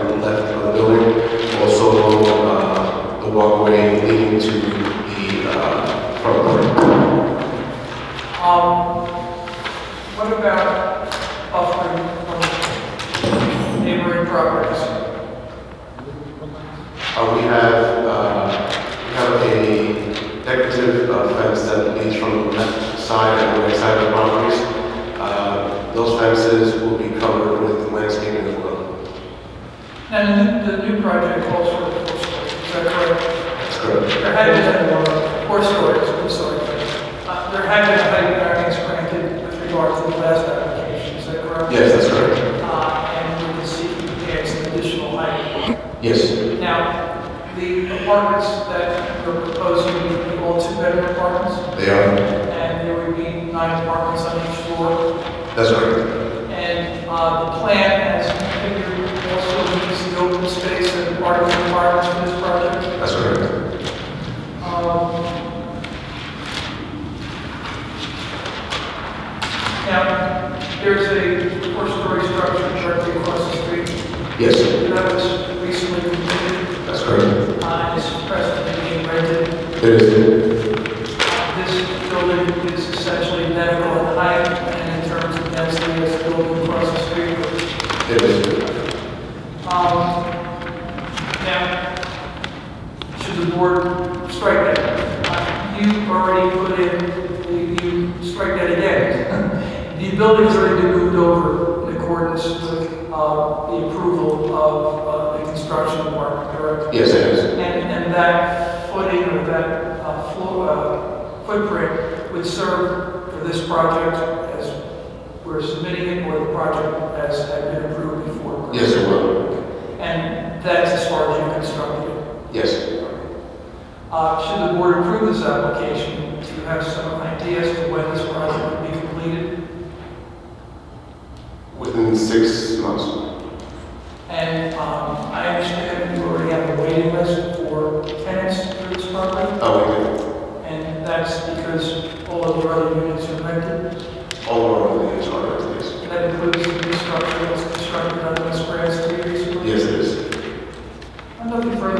uh, Um, Uh, uh, Uh, And the new project calls for a four story, is that correct? That's correct. There had been a four stories, I'm sorry. Uh, There had been a height variance granted with regard to the last application, is that correct? Yes, that's correct. Uh, And we can see he adds an additional height. Yes, Now, the apartments that we're proposing, are all two-bedroom apartments, they are. and there would be nine apartments on each floor. That's correct. And uh, the plan has configured also needs the open space and part of the requirements for this project. That's correct. Um, Now, there's a four-story structure directly across the street Yes, that was recently completed, that's correct. uh, and is presently being rented. There is. This building is essentially identical in height and in terms of density as the building across the street. There is. Um, Now, should the board strike that? Uh, You already put in, you- you strike that again. The building has already been moved over in accordance with uh, the approval of uh, the construction department, correct? Yes, it is. And, and that footing or that uh, floor, uh, footprint would serve for this project as we're submitting it or the project as had been approved before? correct? Yes, it will. And that's as far as you constructed it. Yes. Uh, Should the board approve this application, do you have some idea as to when this project would be completed? Within six months. And um, I understand you already have a waiting list for tenants for this property, Oh, and that's because all of your other units are rented. wait, all over the HR, please. That includes the new structure that's constructed on West Grand Street recently. Yes, it is. I'm looking for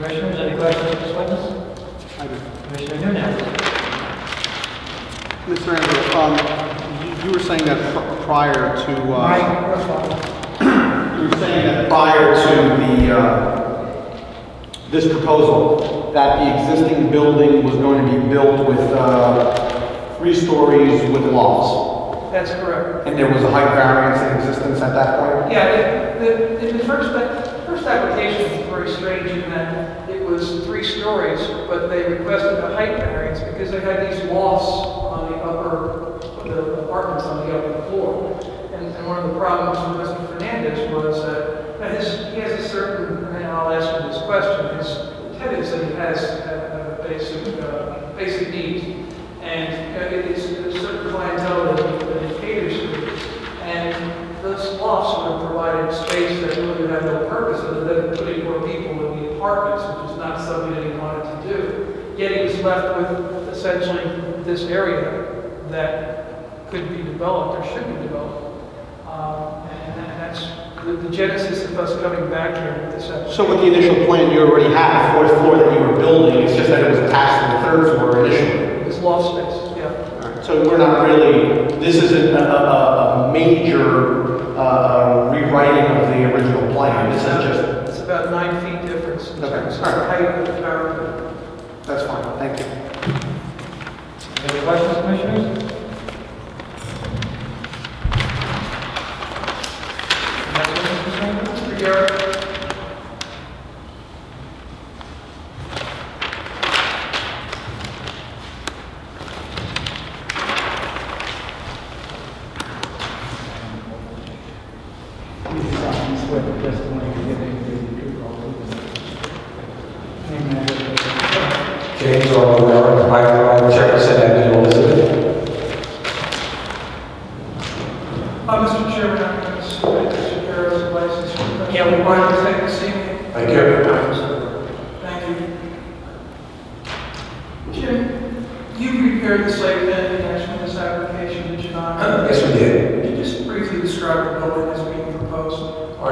Commissioners, any questions for this witness? Commissioner Nunez? Mr. Andrew, um, you- you were saying that pr- prior to, uh, you were saying that prior to the, uh, this proposal, that the existing building was going to be built with, uh, three stories with lofts, That's correct. and there was a height variance in existence at that point? Yeah, the, the, in the first, the first application was very strange in that it was three stories, but they requested a height variance because they had these lofts on the upper, the apartments on the upper floor. And, and one of the problems with Mr. Fernandez was that, that his, he has a certain, and I'll ask him this question, his tenants that he has a, a basic, uh, basic need. And uh, it is a certain clientele that he- that he caters to. And those lofts would have provided space that really would have no purpose other than putting more people in the apartments, which is not something that he wanted to do. Yet he was left with essentially this area that could be developed or should be developed. Um, And that- that's the- the genesis of us coming back here with this application. So with the initial plan, you already had a fourth floor that you were building, it's just that it was attached to the third floor initially? This loft space, yeah. So we're not really, this isn't a, a, a- a major uh, rewriting of the original plan, this is It's about nine feet difference in Okay. terms of All right. height of the parapet. just, that's fine, thank you. Any questions, commissioners? Mr. Garrett, James R. Rivera, 555 Jefferson Avenue, Elizabeth. uh, Mr. Chairman, I'm going to submit Mr. Garrett's license. Yeah, we want